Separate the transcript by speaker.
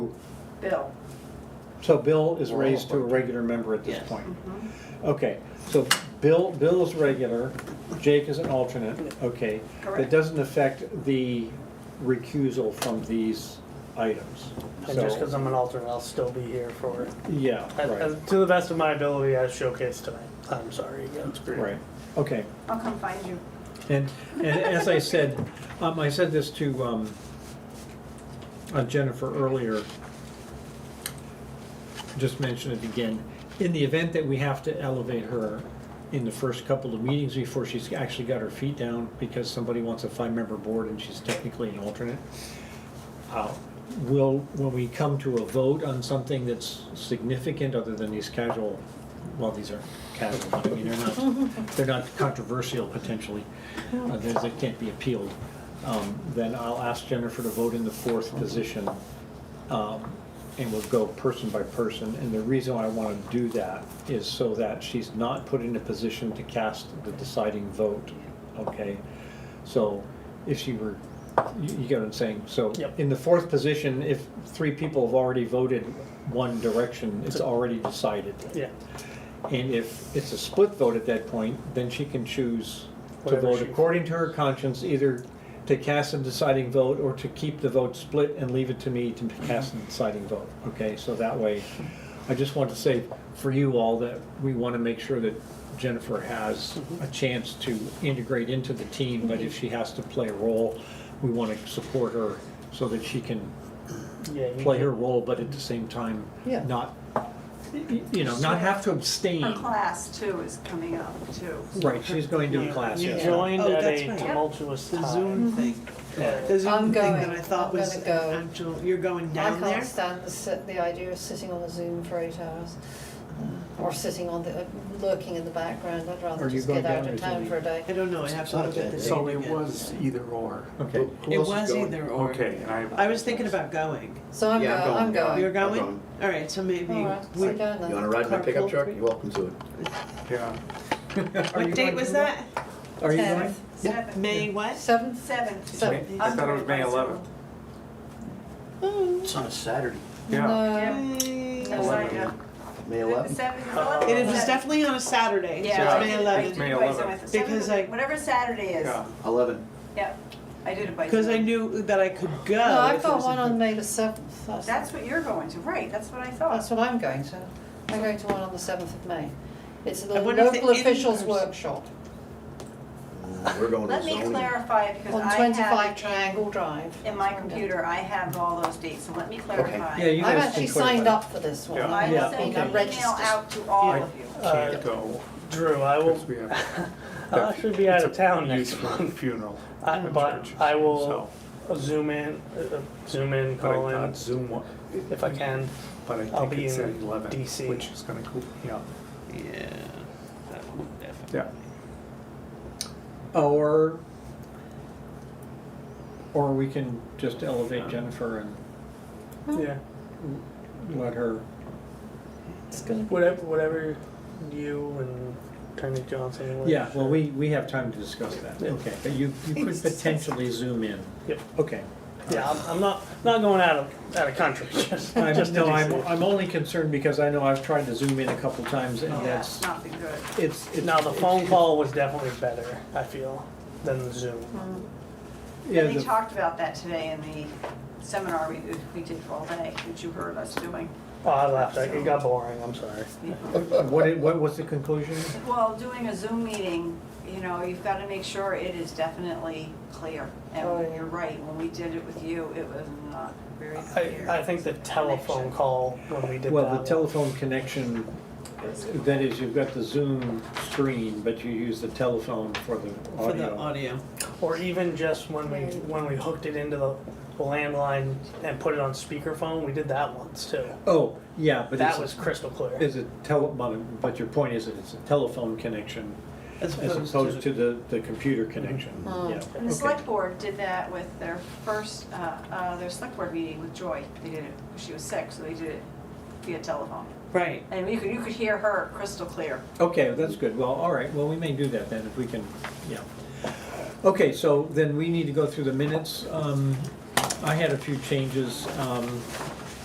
Speaker 1: Bill.
Speaker 2: So Bill is
Speaker 3: We're all
Speaker 2: raised to a
Speaker 3: appointed.
Speaker 2: regular member at this
Speaker 3: Yes.
Speaker 2: point?
Speaker 1: Mhm.
Speaker 2: Okay, so Bill, Bill is regular, Jake is an alternate, okay. That
Speaker 1: Correct.
Speaker 2: doesn't affect the recusal from these items.
Speaker 3: And just because I'm an alternate, I'll still be here for,
Speaker 2: Yeah,
Speaker 3: I- I-
Speaker 2: right,
Speaker 3: to the best of my ability, I showcased tonight. I'm sorry again.
Speaker 2: right, okay.
Speaker 1: I'll come find you.
Speaker 2: And, and as I said, um, I said this to, um, uh, Jennifer earlier. Just mention it again. In the event that we have to elevate her in the first couple of meetings before she's actually got her feet down because somebody wants a five-member board and she's technically an alternate. Uh, Will, when we come to a vote on something that's significant other than these casual, well, these are casual, but I mean, they're not, they're not controversial potentially. uh, They they can't be appealed. um, Then I'll ask Jennifer to vote in the fourth position. um, And we'll go person by person. And the reason I want to do that is so that she's not put in a position to cast the deciding vote, okay? So if she were, you you get what I'm saying? So
Speaker 3: Yep.
Speaker 2: in the fourth position, if three people have already voted one direction, it's already decided.
Speaker 3: Yeah,
Speaker 2: And if it's a split vote at that point, then she can choose to
Speaker 3: Whatever
Speaker 2: vote
Speaker 3: she-
Speaker 2: according to her conscience, either to cast a deciding vote or to keep the vote split and leave it to me to cast a deciding vote, okay? So that way, I just want to say for you all that we want to make sure that Jennifer has a
Speaker 3: Mm-hmm.
Speaker 2: chance to integrate into the team, but if she has to play a role, we want to support her so that she can
Speaker 3: yeah. you
Speaker 2: play
Speaker 3: can-
Speaker 2: her role, but at the same time,
Speaker 3: Yeah.
Speaker 2: not, you know, not have to abstain.
Speaker 1: Her class too is coming up too.
Speaker 2: Right, she's going to a class,
Speaker 3: You
Speaker 2: yes.
Speaker 3: joined
Speaker 4: Oh,
Speaker 3: at
Speaker 4: that's
Speaker 3: a
Speaker 4: right.
Speaker 3: tumultuous
Speaker 4: The
Speaker 3: time.
Speaker 4: Zoom
Speaker 3: Uh,
Speaker 4: thing.
Speaker 3: Yeah.
Speaker 4: The Zoom
Speaker 5: Mm-hmm. I'm
Speaker 4: thing
Speaker 5: going.
Speaker 4: that I thought
Speaker 5: I'm
Speaker 4: was
Speaker 5: gonna go.
Speaker 4: actual. You're going
Speaker 5: I
Speaker 4: down there.
Speaker 5: can't stand the, sit- the idea of sitting on a Zoom for eight hours, uh, or sitting on the, lurking in the background, I'd rather
Speaker 2: Are you
Speaker 5: just
Speaker 2: going
Speaker 5: get out
Speaker 2: down
Speaker 5: of
Speaker 2: or
Speaker 5: town
Speaker 2: something?
Speaker 5: for a day.
Speaker 4: I don't know. I have to look at the
Speaker 6: So
Speaker 4: date
Speaker 6: it
Speaker 4: again.
Speaker 6: was either or.
Speaker 2: Okay.
Speaker 6: Who
Speaker 4: It
Speaker 6: else is
Speaker 4: was
Speaker 6: going?
Speaker 4: either or.
Speaker 6: Okay, and I.
Speaker 4: I was thinking about going.
Speaker 5: So I'm
Speaker 7: Yeah,
Speaker 5: going, Oh, I'm
Speaker 7: I'm going.
Speaker 4: You're
Speaker 5: going. Oh,
Speaker 4: going?
Speaker 6: going.
Speaker 4: All right. So maybe.
Speaker 5: All right,
Speaker 4: we-
Speaker 5: so go
Speaker 7: You wanna
Speaker 5: then.
Speaker 7: ride my pickup
Speaker 4: Carpool.
Speaker 7: truck? You're welcome to it.
Speaker 6: Yeah.
Speaker 4: what date was that?
Speaker 2: Are you going?
Speaker 5: Tenth.
Speaker 1: Seven.
Speaker 4: May what?
Speaker 5: Seventh,
Speaker 1: Seventh.
Speaker 5: Seventh.
Speaker 1: Tuesday.
Speaker 6: I thought it was May
Speaker 1: I'm going
Speaker 6: 11th.
Speaker 4: Oh.
Speaker 7: It's on a Saturday,
Speaker 6: Yeah.
Speaker 5: no,
Speaker 1: by
Speaker 4: Yay.
Speaker 1: myself. Sorry, yeah.
Speaker 7: May
Speaker 1: The
Speaker 7: 11th.
Speaker 1: seventh is eleven.
Speaker 4: It was definitely on a Saturday.
Speaker 1: Yeah.
Speaker 4: So it's May
Speaker 1: I did
Speaker 4: 11th.
Speaker 1: it by
Speaker 6: May
Speaker 1: myself.
Speaker 6: 11th.
Speaker 1: Seventh
Speaker 4: Because
Speaker 1: of-
Speaker 4: I-
Speaker 1: Whatever Saturday is,
Speaker 6: Yeah.
Speaker 7: 11.
Speaker 1: yeah, I did it by.
Speaker 4: Because I
Speaker 1: Zoom.
Speaker 4: knew that I could go.
Speaker 5: I've
Speaker 4: if it
Speaker 5: got
Speaker 4: was
Speaker 5: one
Speaker 4: a-
Speaker 5: on May the seventh, that's,
Speaker 1: That's what you're going to, right, that's what I
Speaker 5: that's
Speaker 1: thought.
Speaker 5: what I'm going to. I'm going to one on the seventh of May. It's the
Speaker 4: I wonder if
Speaker 5: local
Speaker 4: the
Speaker 5: officials
Speaker 4: in-person-
Speaker 5: workshop
Speaker 7: Mm, We're going
Speaker 1: Let
Speaker 7: to
Speaker 1: me
Speaker 7: zoning.
Speaker 1: clarify, because
Speaker 5: on
Speaker 1: I
Speaker 5: twenty-five
Speaker 1: have,
Speaker 5: Triangle Drive.
Speaker 1: in my computer, I have all those dates, so let me clarify.
Speaker 2: Yeah, you
Speaker 5: I've
Speaker 2: guys
Speaker 5: actually
Speaker 2: can clarify.
Speaker 5: signed up for this one.
Speaker 6: Yeah.
Speaker 1: I
Speaker 2: Yeah,
Speaker 1: will send
Speaker 2: okay.
Speaker 1: an email out to all of you.
Speaker 3: Uh,
Speaker 6: Can't go,
Speaker 3: Drew, I will,
Speaker 6: because we have.
Speaker 3: I'll actually be out of town
Speaker 6: Youth
Speaker 3: next month,
Speaker 6: Funeral.
Speaker 3: I-
Speaker 6: at
Speaker 3: but
Speaker 6: church,
Speaker 3: I will
Speaker 6: so,
Speaker 3: zoom in, uh, uh, zoom in,
Speaker 6: But
Speaker 3: call
Speaker 6: I
Speaker 3: in
Speaker 6: thought Zoom, wa-
Speaker 3: if I can.
Speaker 6: but I
Speaker 3: I'll
Speaker 6: think
Speaker 3: be
Speaker 6: it's at
Speaker 3: in
Speaker 6: 11,
Speaker 3: DC.
Speaker 6: which is gonna cool, yeah,
Speaker 4: Yeah. that would definitely-
Speaker 6: yeah.
Speaker 2: Or, or we can just elevate Jennifer and
Speaker 3: Yeah,
Speaker 2: let her,
Speaker 5: It's gonna be.
Speaker 3: whatever, whatever you and Attorney Johnson. whatever.
Speaker 2: yeah, well, we, we have time to discuss that.
Speaker 3: Yeah.
Speaker 2: Okay, but you, you could potentially zoom in.
Speaker 3: Yep.
Speaker 2: Okay.
Speaker 3: Yeah, I'm, I'm not, not going out of, out of country, just,
Speaker 2: I'm,
Speaker 3: just to
Speaker 2: no, I'm,
Speaker 3: DC.
Speaker 2: I'm only concerned because I know I've tried to zoom in a couple times
Speaker 4: Oh,
Speaker 2: and
Speaker 1: Yeah,
Speaker 2: that's,
Speaker 1: not been good.
Speaker 2: it's, it's.
Speaker 3: Now, the
Speaker 2: it's-
Speaker 3: phone call was definitely better, I feel, than the Zoom.
Speaker 2: Yeah,
Speaker 1: And they
Speaker 2: the-
Speaker 1: talked about that today in the seminar we, we did for all day, which you heard us doing.
Speaker 3: Oh, I left, it got boring, I'm sorry.
Speaker 2: What, it- what was the conclusion?
Speaker 1: Well, doing a Zoom meeting, you know, you've got to make sure it is definitely clear.
Speaker 5: Oh,
Speaker 1: And
Speaker 5: yeah.
Speaker 1: you're right, when we did it with you, it was not very clear.
Speaker 3: I, I think the telephone call when we did that.
Speaker 2: Well, the
Speaker 3: one-
Speaker 2: telephone connection, that is, you've got the Zoom screen, but you use the telephone for the
Speaker 4: For the
Speaker 2: audio.
Speaker 4: audio.
Speaker 3: Or even just when we, when we hooked it into the landline and put it on speakerphone, we did that once too.
Speaker 2: Oh, yeah, but
Speaker 3: That was
Speaker 2: it's,
Speaker 3: crystal clear.
Speaker 2: it's a tele, but- but your point is that it's a telephone connection
Speaker 4: As
Speaker 2: as opposed to the, the computer connection,
Speaker 5: Mm.
Speaker 2: yeah.
Speaker 1: Oh, And
Speaker 2: okay.
Speaker 1: the select board did that with their first, uh, uh, their select board meeting with Joy. They did it, she was sick, so they did it via telephone.
Speaker 4: Right.
Speaker 1: And you could, you could hear her crystal clear.
Speaker 2: Okay, well, that's good. Well, all right, well, we may do that then if we can, yeah. Okay, so then we need to go through the minutes. Um, I had a few changes. Um,